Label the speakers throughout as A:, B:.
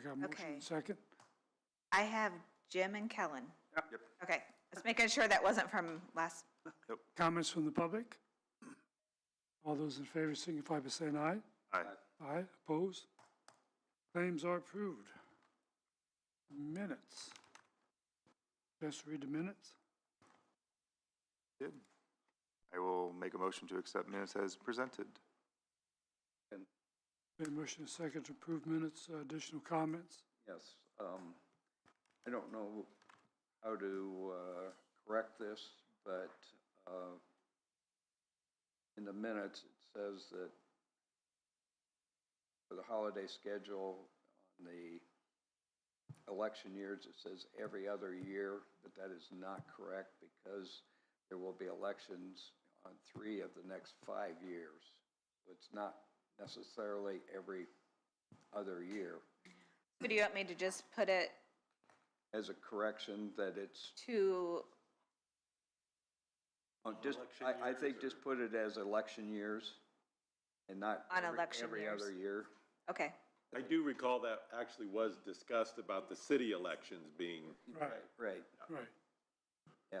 A: got a motion
B: Okay.
A: and second?
B: I have Jim and Kellen.
C: Yep.
B: Okay, let's making sure that wasn't from last,
A: Comments from the public? All those in favor signify by saying aye.
D: Uh,
C: Aye.
A: Aye, opposed? Claims are approved. Minutes. Just read the minutes.
C: Good. I will make a motion to accept minutes as presented.
A: Been motion and second to approve minutes, Uh, additional comments?
D: Yes, um, I don't know how to, uh, correct this, but, uh, in the minutes, it says that for the holiday schedule on the election years, it says every other year, but that is not correct because there will be elections on three of the next five years. So It's not necessarily every other year.
B: what do you want me to just put it
D: as a correction that it's,
B: to,
D: oh, just, I, I think just put it as election years and not
B: On
D: every-
B: election
D: every
B: years.
D: other year.
B: okay,
E: I do recall that actually was discussed about the city elections being
A: Right,
D: Right,
A: right.
D: yeah.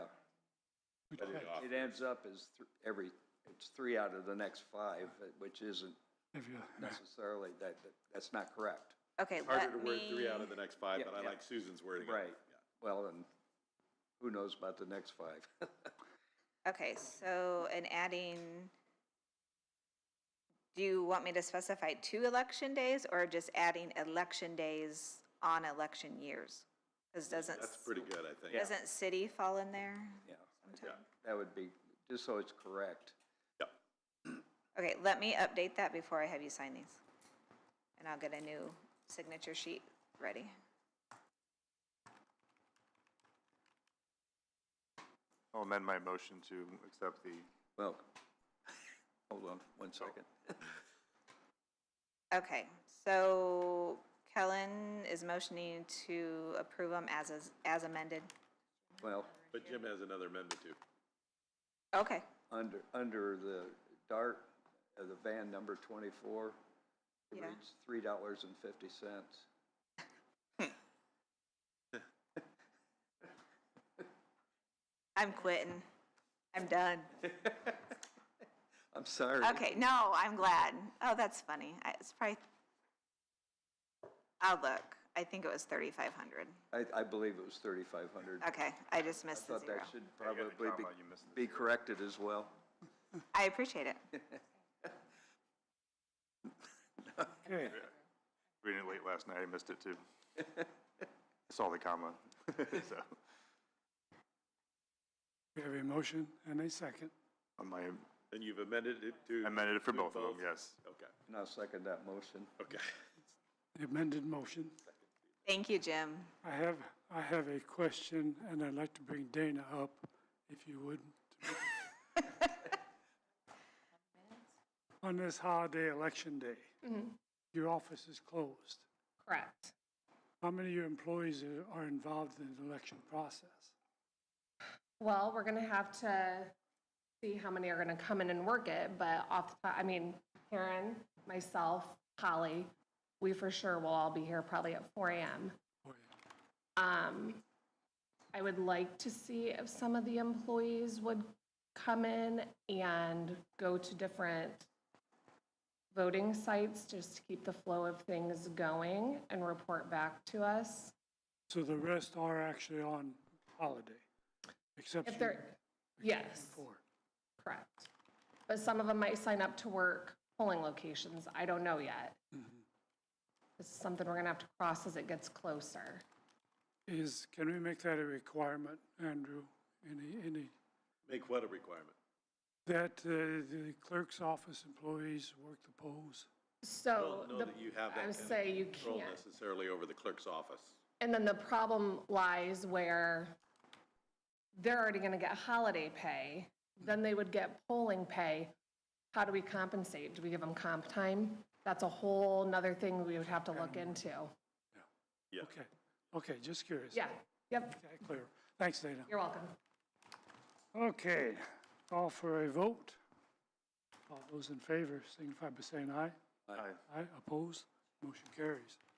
E: cut it off.
D: It ends up as thr- every, it's three out of the next five, uh, which isn't
A: If you,
D: necessarily, that, that- that's not correct.
B: okay,
E: Harder to
B: let
E: word
B: me,
E: three out of the next five,
D: Yeah,
E: but I
D: yeah.
E: like Susan's wording. of it.
D: Right, well, and who knows about the next five?
B: okay, so, and adding, do you want me to specify two election days or just adding election days on election years? Because doesn't,
E: That's pretty good, I think.
B: doesn't city fall in there?
D: Yeah,
B: sometime?
D: that would be, just so it's correct.
E: Yep.
B: Okay, let me update that before I have you sign these. And I'll get a new signature sheet ready.
C: I'll amend my motion to accept the,
D: Well, hold on one second.
B: Okay, so Kellen is motioning to approve them as, is- as amended.
D: Well,
E: But Jim has another amendment too.
B: Okay,
D: under, under the dart, of the van number twenty-four, it
B: Yeah.
D: reads three dollars and fifty cents.
B: I'm quitting. I'm done.
D: I'm sorry.
B: Okay, no, I'm glad. Oh, that's funny. I- It's probably, I'll look. I think it was 3,500.
D: I, I believe it was thirty-five hundred. I
B: Okay, I just missed the
D: thought
B: zero.
D: that should
C: got the
D: probably
C: comma, you missed the
D: be, be corrected as well.
B: I appreciate it.
A: okay,
C: reading it late last night, I missed it too. I Saw the comma, so,
A: we have a motion and a second.
C: on my,
E: And you've amended it to.
C: I amended it for
E: to
C: both of them, yes.
E: Okay,
D: And I'll second that motion.
E: okay.
A: The amended motion.
B: Thank you, Jim.
A: I have, I have a question, and I'd like to bring Dana up, if you would. On this holiday election day,
F: Mm-hmm.
A: your office is closed.
F: Correct.
A: How many of your employees are- are involved in the election process?
F: Well, we're going to have to see how many are going to come in and work it, but off the top, I mean, Karen, myself, Holly, we for sure will all be here probably at 4 a.m.
A: Boy,
F: Um, I would like to see if some of the employees would come in and go to different voting sites just to keep the flow of things going and report back to us.
A: So the rest are actually on holiday, except
F: If
A: you-
F: they're, yes.
A: four.
F: Correct. But some of them might sign up to work polling locations. I don't know yet.
E: Mm-hmm.
F: This is something we're going to have to cross as it gets closer.
A: Is, can we make that a requirement, Andrew? Any, any,
E: Make what a requirement?
A: that uh, the clerk's office employees work the polls?
F: So
E: Don't know
F: Oh, the-
E: that you have that
F: I
E: kind
F: would
E: of
F: say you
E: control
F: can't.
E: Necessarily over the clerk's office.
F: And then the problem lies where they're already going to get holiday pay, then they would get polling pay. How do we compensate? Do we give them comp time? That's a whole nother thing we would have to look into.
E: Yeah.
A: Okay, okay, just curious.
F: Yeah, yep,
A: Okay, clear. Thanks, Dana.
F: you're welcome.
A: Okay, call for a vote. All those in favor signify by saying aye.
C: Aye.
A: Aye, opposed, motion carries.